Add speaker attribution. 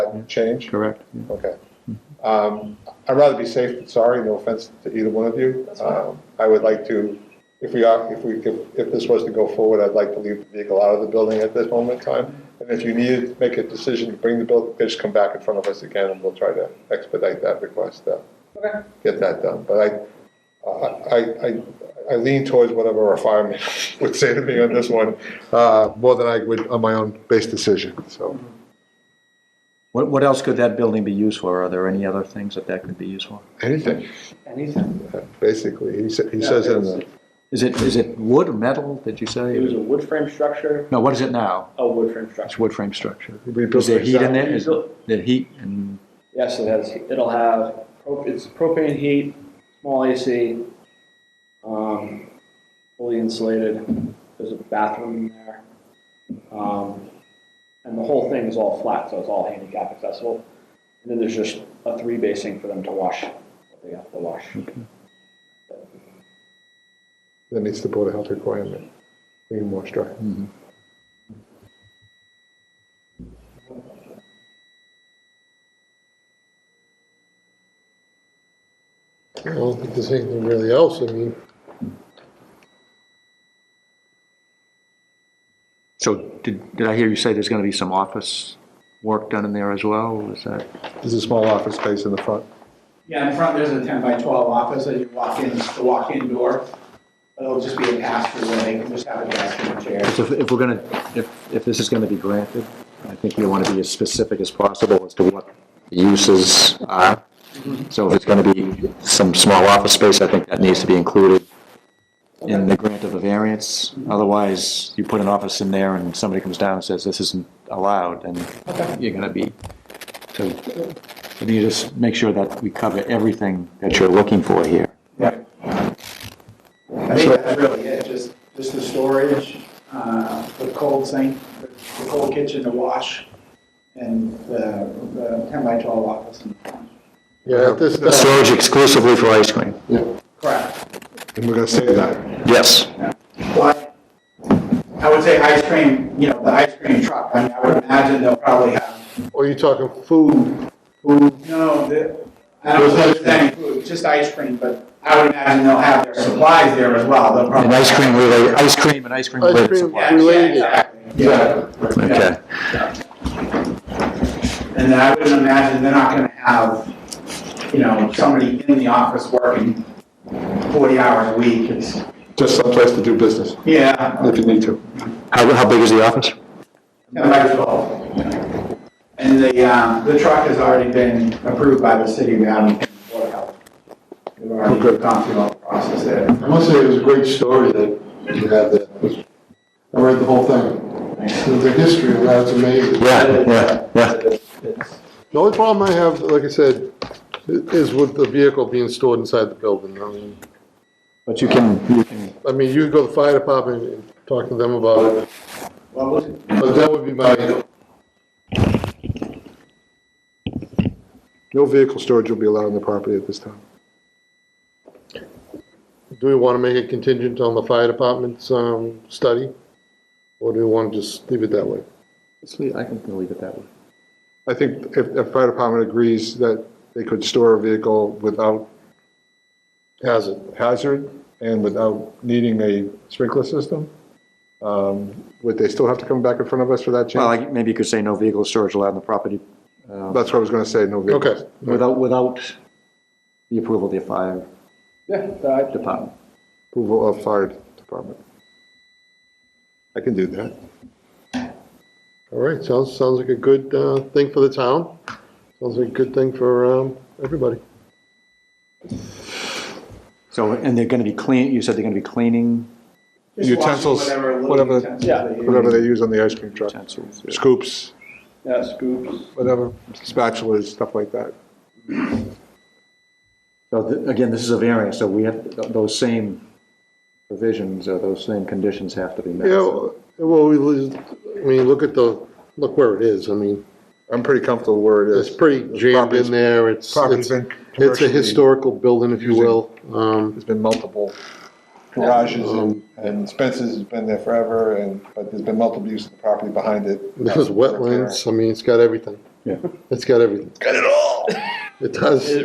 Speaker 1: that change?
Speaker 2: Correct.
Speaker 1: Okay. Um, I'd rather be safe than sorry, no offense to either one of you. Um, I would like to, if we are, if we, if if this was to go forward, I'd like to leave the vehicle out of the building at this moment in time. And if you need to make a decision to bring the bill, just come back in front of us again, and we'll try to expedite that request, uh,
Speaker 3: Okay.
Speaker 1: get that done. But I, I, I, I lean towards whatever our fireman would say to me on this one, uh, more than I would on my own base decision, so.
Speaker 2: What, what else could that building be used for? Are there any other things that that could be used for?
Speaker 1: Anything,
Speaker 3: Anything.
Speaker 1: basically, he sa he says it in the.
Speaker 2: Is it, is it wood or metal, did you
Speaker 3: It was
Speaker 2: say?
Speaker 3: a wood frame structure,
Speaker 2: No, what is it now?
Speaker 3: a wood frame
Speaker 2: It's
Speaker 3: structure.
Speaker 2: wood frame structure.
Speaker 1: We built
Speaker 2: Is there heat
Speaker 1: it.
Speaker 2: in there? Is there heat and,
Speaker 3: Yes, it has, it'll have, pro- it's propane heat, small AC, um, fully insulated. There's a bathroom in there. Um, and the whole thing is all flat, so it's all handicap accessible. And then there's just a three basin for them to wash, what they have to wash.
Speaker 1: That meets the Board of Health requirement, being more strict.
Speaker 2: mm-hmm.
Speaker 4: I don't think there's anything really else, I mean,
Speaker 2: so did, did I hear you say there's gonna be some office work done in there as well? Is that?
Speaker 1: There's a small office space in the front.
Speaker 5: Yeah, in front, there's a ten by twelve office, as you walk in, it's the walk-in door. It'll just be a pass-through, where they can just have a desk and a chair.
Speaker 2: So if- if we're going to, if, if this is going to be granted, I think we want to be as specific as possible as to what the uses are. So if it's going to be some small office space, I think that needs to be included in the grant of a variance. Otherwise, you put an office in there and somebody comes down and says, this isn't allowed, and you're going to be, so we need to just make sure that we cover everything that you're looking for here.
Speaker 5: Right. I think that's really it, just, just the storage, uh, the cold sink, the the cold kitchen to wash, and the, the ten by twelve office in the front.
Speaker 4: yeah, at this time,
Speaker 2: Storage exclusively for ice cream?
Speaker 5: Correct.
Speaker 1: And we're gonna save that.
Speaker 2: Yes.
Speaker 5: But I would say ice cream, you know, the ice cream truck, I mean, I would imagine they'll probably have
Speaker 4: or you're talking food, food,
Speaker 5: No, the, I don't know if there's any food, just ice cream, but I would imagine they'll have their supplies there as well. They'll
Speaker 2: And
Speaker 5: probably-
Speaker 2: ice cream related, ice cream and ice cream
Speaker 4: ice
Speaker 2: related
Speaker 4: cream
Speaker 5: Yeah, yeah,
Speaker 4: related.
Speaker 5: exactly, yeah.
Speaker 2: Okay,
Speaker 5: And then I wouldn't imagine they're not gonna have, you know, somebody in the office working forty hours a week, it's,
Speaker 1: Just someplace to do business,
Speaker 5: yeah,
Speaker 1: if you need to.
Speaker 2: how, how big is the office?
Speaker 5: ten by twelve. And the, um, the truck has already been approved by the city, we haven't, Board of Health. We've already gone through all the process there.
Speaker 4: I must say, it was a great story that you had there. I read the whole thing. The history of that's amazing.
Speaker 2: yeah, yeah.
Speaker 4: The only problem I have, like I said, i- is with the vehicle being stored inside the building. I mean,
Speaker 2: But you can, you can,
Speaker 4: I mean, you go to the fire department and talk to them about it,
Speaker 5: What was it?
Speaker 4: but that would be my,
Speaker 1: No vehicle storage will be allowed on the property at this time.
Speaker 4: do we want to make it contingent on the fire department's, um, study? Or do we want to just leave it that way?
Speaker 2: I can leave it that way.
Speaker 1: I think if the fire department agrees that they could store a vehicle without hazard, hazard and without needing a sprinkler system, um, would they still have to come back in front of us for that
Speaker 2: Well,
Speaker 1: change?
Speaker 2: like, maybe you could say no vehicle storage allowed on the property
Speaker 1: That's what I was gonna say, no vehicles.
Speaker 4: Okay.
Speaker 2: without, without the approval of the fire
Speaker 3: Yeah, that-
Speaker 2: department.
Speaker 1: Approval of fire department. I can do that.
Speaker 4: All right, sounds, sounds like a good uh, thing for the town. Sounds like a good thing for um, everybody.
Speaker 2: So, and they're gonna be clean, you said they're gonna be cleaning
Speaker 5: Just
Speaker 1: Utensils,
Speaker 5: washing Whatever
Speaker 1: whatever-
Speaker 5: little utensils.
Speaker 3: Yeah.
Speaker 5: they use.
Speaker 1: Whatever they use on the ice cream truck,
Speaker 2: utensils.
Speaker 1: scoops,
Speaker 3: yeah, scoops.
Speaker 1: whatever, spatulas, stuff like that.
Speaker 2: So th- again, this is a variance, so we have, th- those same provisions, or those same conditions have to be met.
Speaker 4: Yeah, well, well, we, lose- I mean, look at the, look where it is. I mean,
Speaker 1: I'm pretty comfortable where it
Speaker 4: it's
Speaker 1: is.
Speaker 4: pretty jammed
Speaker 1: property's-
Speaker 4: in there. It's,
Speaker 1: Property's
Speaker 4: it's
Speaker 1: been
Speaker 4: it's a
Speaker 1: commercially-
Speaker 4: historical building, if you will. Um,
Speaker 1: There's been multiple garages and, and Spencer's has been there forever and, but there's been multiple uses of the property behind it.
Speaker 4: There's wetlands. I mean, it's got everything.
Speaker 2: Yeah.
Speaker 4: It's got everything.
Speaker 1: Got it all!
Speaker 4: It does.